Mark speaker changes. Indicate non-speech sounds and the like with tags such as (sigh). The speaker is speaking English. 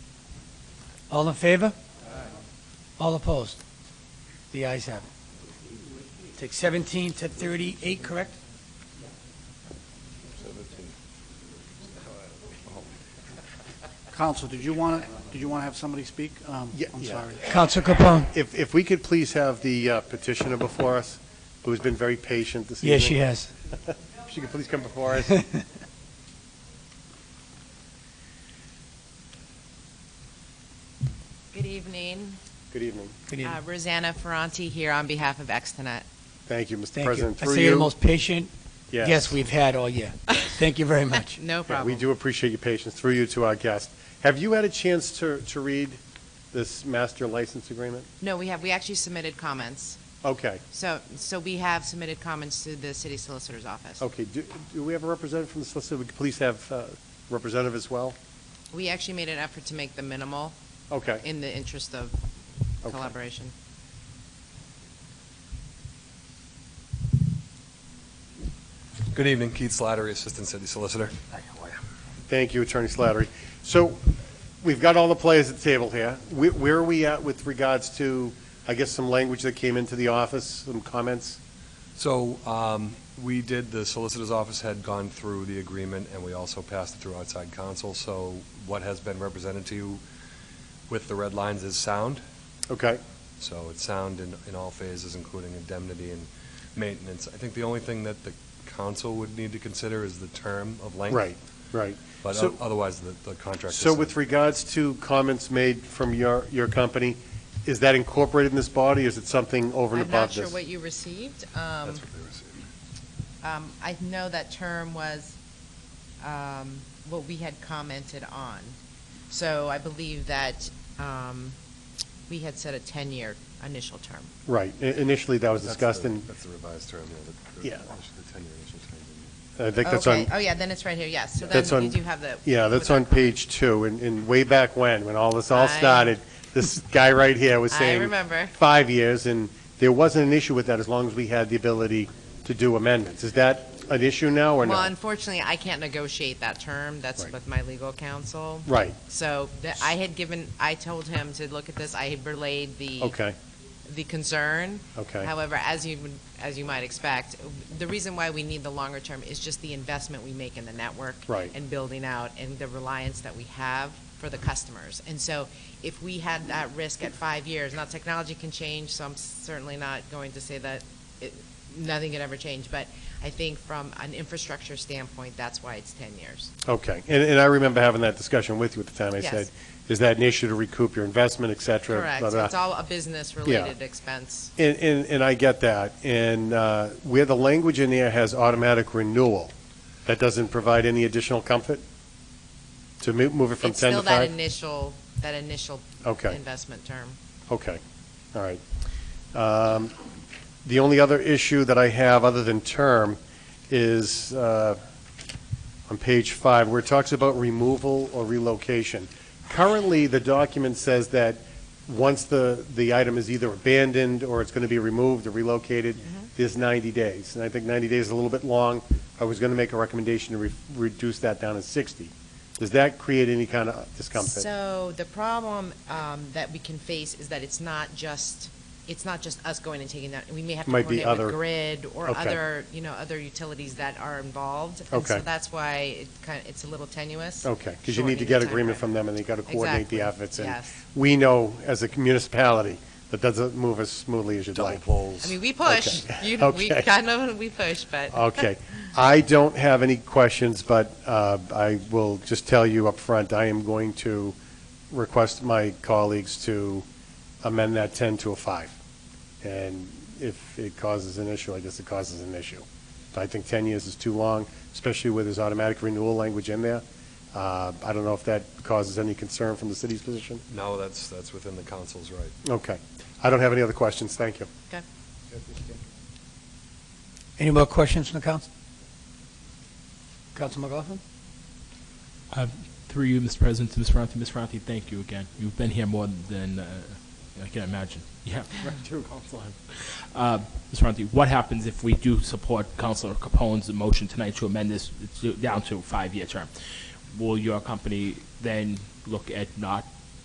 Speaker 1: All in favor? All opposed? The ayes have it. Take 17 to 38, correct?
Speaker 2: Counsel, did you want to, did you want to have somebody speak? Um,
Speaker 3: Yeah,
Speaker 2: I'm
Speaker 3: yeah.
Speaker 2: sorry.
Speaker 1: Counsel Capone?
Speaker 3: If, if we could please have the uh, petitioner before us, who's been very patient this evening.
Speaker 1: Yes, she has.
Speaker 3: (laughs) If She could please come before
Speaker 1: (laughs)
Speaker 3: us.
Speaker 4: Good evening.
Speaker 3: Good evening.
Speaker 1: Good
Speaker 4: Uh,
Speaker 1: evening.
Speaker 4: Rosanna Ferranti here on behalf of Extonet.
Speaker 3: Thank you, Mr.
Speaker 1: Thank you.
Speaker 3: President.
Speaker 1: I
Speaker 3: Through
Speaker 1: say you're the
Speaker 3: you-
Speaker 1: most patient guest we've had all year. Thank you very (laughs) much.
Speaker 4: No
Speaker 3: Yeah, We
Speaker 4: problem.
Speaker 3: do appreciate your patience. Through you to our guest. Have you had a chance to, to read this master license agreement?
Speaker 4: No, we have, we actually submitted comments.
Speaker 3: Okay,
Speaker 4: So, so we have submitted comments to the city solicitor's office.
Speaker 3: okay. Do, do we have a representative from the solicitor? We could please have uh, representative as well?
Speaker 4: We actually made an effort to make the minimal
Speaker 3: Okay.
Speaker 4: in the interest of
Speaker 3: Okay.
Speaker 4: collaboration.
Speaker 5: Good evening, Keith Slattery, Assistant City Solicitor.
Speaker 3: Thank you, Attorney Slattery. So we've got all the players at the table here. Where, where are we at with regards to, I guess, some language that came into the office, some comments?
Speaker 5: So, um, we did, the Solicitor's Office had gone through the agreement, and we also passed it through outside counsel, so what has been represented to you with the red lines is sound,
Speaker 3: Okay,
Speaker 5: so it's sound in, in all phases, including indemnity and maintenance. I think the only thing that the council would need to consider is the term of length.
Speaker 3: right, right.
Speaker 5: But
Speaker 3: So-
Speaker 5: o- otherwise, the, the contract is...
Speaker 3: So with regards to comments made from your, your company, is that incorporated in this body, or is it something over and
Speaker 4: I'm not
Speaker 3: above
Speaker 4: sure
Speaker 3: this?
Speaker 4: what you received. Um,
Speaker 5: That's what they received.
Speaker 4: um, I know that term was um, what we had commented on. So I believe that um, we had set a 10-year initial term.
Speaker 3: Right, I- initially that was
Speaker 5: That's
Speaker 3: discussed,
Speaker 5: the-
Speaker 3: and
Speaker 5: That's the revised term, yeah. the- the-
Speaker 3: Yeah.
Speaker 5: The ten-year initial term.
Speaker 3: I think that's on,
Speaker 4: Okay. Oh, yeah, then it's right here, yes. So
Speaker 3: That's
Speaker 4: then
Speaker 3: on-
Speaker 4: you do have the.
Speaker 3: yeah,
Speaker 4: with
Speaker 3: that's
Speaker 4: our
Speaker 3: on
Speaker 4: comment.
Speaker 3: page two, and, and way back when, when all this all
Speaker 4: I-
Speaker 3: started, this guy right here was
Speaker 4: I
Speaker 3: saying.
Speaker 4: remember.
Speaker 3: Five years, and there wasn't an issue with that as long as we had the ability to do amendments. Is that an issue now or
Speaker 4: Well,
Speaker 3: not?
Speaker 4: unfortunately, I can't negotiate that term. That's
Speaker 3: Right.
Speaker 4: with my legal counsel.
Speaker 3: Right,
Speaker 4: So the- I had given, I told him to look at this. I had relayed the.
Speaker 3: okay,
Speaker 4: The concern.
Speaker 3: okay.
Speaker 4: However, as you, would- as you might expect, the reason why we need the longer term is just the investment we make in the network.
Speaker 3: Right.
Speaker 4: And building out and the reliance that we have for the customers. And so if we had that risk at five years, now technology can change, so I'm certainly not going to say that it, nothing could ever change. But I think from an infrastructure standpoint, that's why it's ten years.
Speaker 3: Okay, and, and I remember having that discussion with you at the time. I
Speaker 4: Yes.
Speaker 3: said, is that an issue to recoup your investment, et cetera?
Speaker 4: Correct.
Speaker 3: blah,
Speaker 4: So
Speaker 3: blah.
Speaker 4: it's all a business-related expense.
Speaker 3: And, and, and I get that. And, uh, where the language in there has automatic renewal, that doesn't provide any additional comfort? To mo- move it from
Speaker 4: It's
Speaker 3: ten to
Speaker 4: still that
Speaker 3: five?
Speaker 4: initial, that initial
Speaker 3: Okay.
Speaker 4: investment term.
Speaker 3: Okay, all right. Um, The only other issue that I have, other than term, is uh, on page five, where it talks about removal or relocation. Currently, the document says that once the, the item is either abandoned or it's going to be removed or relocated, there's 90 days. And I think 90 days is a little bit long. I was going to make a recommendation to re- reduce that down to 60. Does that create any kind of discomfort?
Speaker 4: So the problem um, that we can face is that it's not just, it's not just us going and taking that. We may have to
Speaker 3: Might be
Speaker 4: coordinate with
Speaker 3: other-
Speaker 4: grid or
Speaker 3: Okay.
Speaker 4: other, you know, other utilities that are involved. And
Speaker 3: Okay.
Speaker 4: so that's why it kind, it's a little tenuous.
Speaker 3: Okay, because you need to get agreement from them, and they got to coordinate the
Speaker 4: Exactly,
Speaker 3: efforts. and
Speaker 4: yes.
Speaker 3: We know, as a municipality, that doesn't move as smoothly as you'd
Speaker 5: Double
Speaker 3: like.
Speaker 5: poles.
Speaker 4: I mean, we push.
Speaker 3: (laughs)
Speaker 4: You, we
Speaker 3: Okay.
Speaker 4: kind of, we push, but.
Speaker 3: Okay. I don't have any questions, but uh, I will just tell you up front, I am going to request my colleagues to amend that 10 to a 5. And if it causes an issue, I guess it causes an issue. But I think 10 years is too long, especially with this automatic renewal language in there. Uh, I don't know if that causes any concern from the city's position.
Speaker 5: No, that's, that's within the council's right.
Speaker 3: Okay. I don't have any other questions. Thank you.
Speaker 4: Okay.
Speaker 1: Any more questions from the council? Council McLaughlin?
Speaker 6: Uh, through you, Mr. President, to Ms. Ferranti. Ms. Ferranti, thank you again. You've been here more than uh, I can imagine. (laughs) Yeah. Uh, Ms. Ferranti, what happens if we do support Councilor Capone's motion tonight to amend this to- down to a five-year term? Will your company then look at not